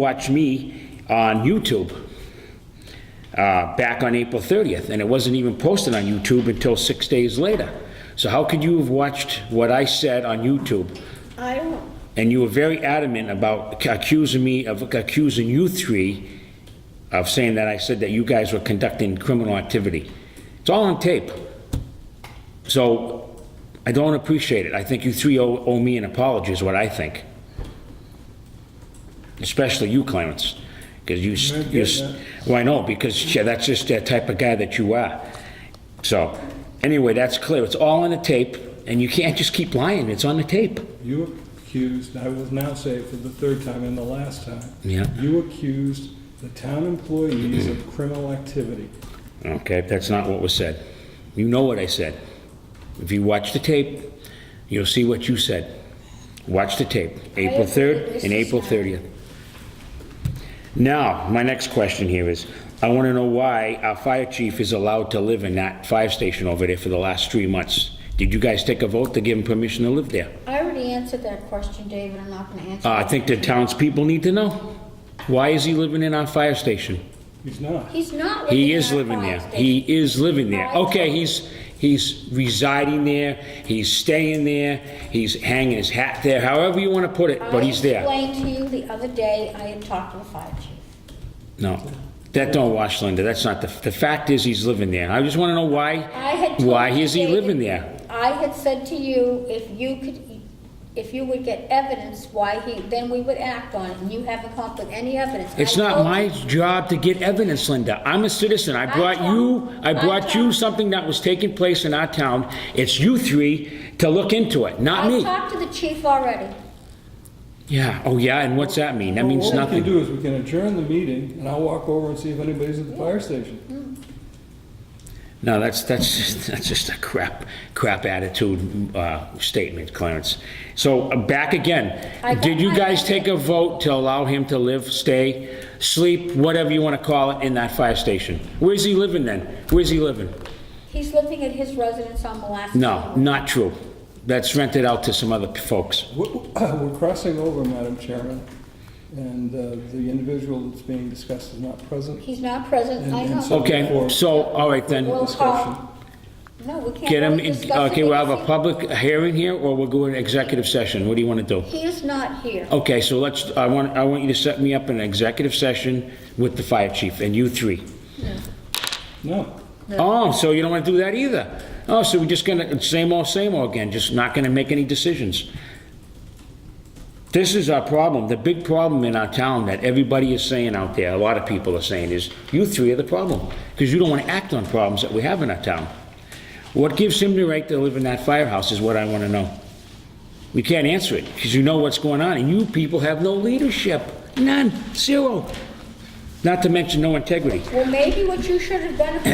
watch me on YouTube uh, back on April 30th, and it wasn't even posted on YouTube until six days later. So how could you have watched what I said on YouTube? I don't, And you were very adamant about accusing me of accusing you three of saying that I said that you guys were conducting criminal activity. It's all on tape. So I don't appreciate it. I think you three owe, owe me an apology is what I think. Especially you, Clarence, because you, s- you, s- well, I know, because yeah, that's just the type of guy that you are. So, anyway, that's clear. It's all on the tape, and you can't just keep lying. It's on the tape. You accused, I will now say it for the third time and the last time. Yeah. You accused the town employees of criminal activity. Okay, that's not what was said. You know what I said. If you watch the tape, you'll see what you said. Watch the tape, April 3rd and April 30th. Now, my next question here is, I want to know why our fire chief is allowed to live in that fire station over there for the last three months. Did you guys take a vote to give him permission to live there? I already answered that question, David, I'm not gonna answer. Uh, I it. think the townspeople need to know. Why is he living in our fire station? He's not. He's not living He in is our living fire there. He station. is living there. Fire Okay, station. he's, he's residing there, he's staying there, he's hanging his hat there, however you want to put it, but he's I there. explained to you the other day, I had talked to the fire chief. No, that don't wash Linda, that's not the, the fact is he's living there. I just want to know why, I had told why you, is he David, living there? I had said to you, if you could, if you would get evidence why he, then we would act on it, and you haven't come up with any evidence. It's I not told my you- job to get evidence, Linda. I'm a citizen. I brought you, I brought you something that was taking place in our town. It's you three to look into it, not I me. talked to the chief already. Yeah, oh yeah, and what's that mean? That means What we nothing. can do is we can adjourn the meeting, and I'll walk over and see if anybody's at the fire station. No, that's, that's, just- that's just a crap, crap attitude uh, statement, Clarence. So, uh, back again, I got did you my guys answer. take a vote to allow him to live, stay, sleep, whatever you want to call it, in that fire station? Where's he living then? Where's he living? He's living at his residence on Molasses. No, not true. That's rented out to some other folks. We're we're crossing over, Madam Chairman, and uh, the individual that's being discussed is not present. He's not present, And- I and know. so Okay, so, all right then, We'll Discussion. call. No, we can't. get him, really discuss it okay, we'll have a because public hearing here, or we'll go in executive session. What do you want to do? He he is not here. Okay, so let's, I want, I want you to set me up an executive session with the fire chief and you three. No. Oh, so you don't want to do that either? Oh, so we're just gonna, same old, same old again, just not gonna make any decisions. This is our problem, the big problem in our town that everybody is saying out there, a lot of people are saying is, you three are the problem, because you don't want to act on problems that we have in our town. What gives him the right to live in that firehouse is what I want to know. We can't answer it, because you know what's going on, and you people have no leadership, none, zero. Not to mention no integrity. Well, maybe what you should have done if you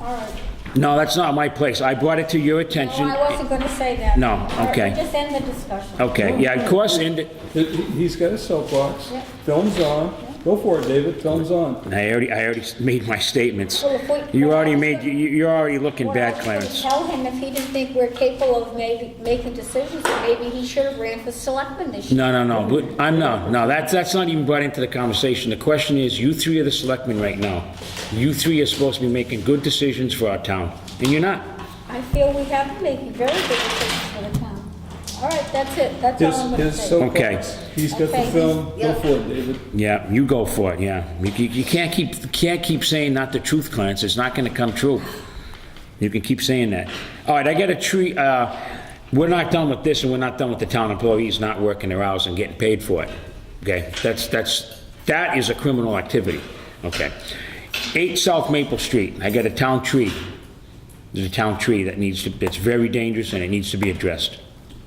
all right. No, that's not my place. I brought it to your No, attention. I wasn't gonna say that. No, All right, okay. Just end the discussion. Okay, Uh, yeah, of course, and, He- He's got his soapbox. Yeah. Film's on. Go for it, David. Film's on. and I already, I already made my statements. Well, if we- You already made, you- you're already looking bad, Well, I should Clarence. Tell him if he didn't think we're capable of maybe, making decisions, that maybe he should have ran for selectman this year. No, no, no, but I'm, no, no, that's, that's not even brought into the conversation. The question is, you three are the selectmen right now. You three are supposed to be making good decisions for our town, and you're not. I feel we have been making very good decisions for the town. All right, that's it, that's all His, I'm gonna his say. soapbox. He's got the Okay. film. Go Yeah. for it, David. Yeah, you go for it, yeah. You, you- you can't keep, you can't keep saying not the truth, Clarence, it's not gonna come true. You can keep saying that. All right, I got a tree, uh, we're not done with this, and we're not done with the town employees not working their hours and getting paid for it. Okay, that's, that's, that is a criminal activity, okay? Eight South Maple Street, I got a town tree. There's a town tree that needs to, it's very dangerous and it needs to be addressed.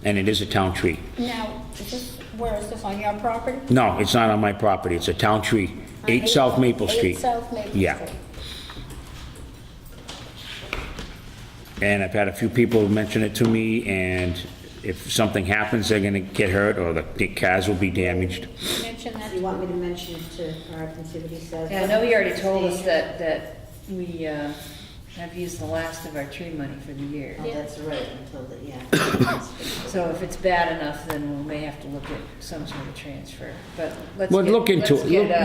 And it is a town tree. Now, is this, where is this, on your property? No, it's not on my property, it's a town tree, 8 South Maple Street. Uh, Eight South Maple Street. Yeah. And I've had a few people mention it to me, and if something happens, they're gonna get hurt, or the- the cars will be damaged. Mention that. You want me to mention it to Art and see what he says? Yeah, I know you already told us that, that we, uh, I've used the last of our tree money for the year. Oh, Yeah. that's right, until the, yeah. So if it's bad enough, then we may have to look at some sort of transfer, but let's Well, get- look into let's it. get, Look- uh,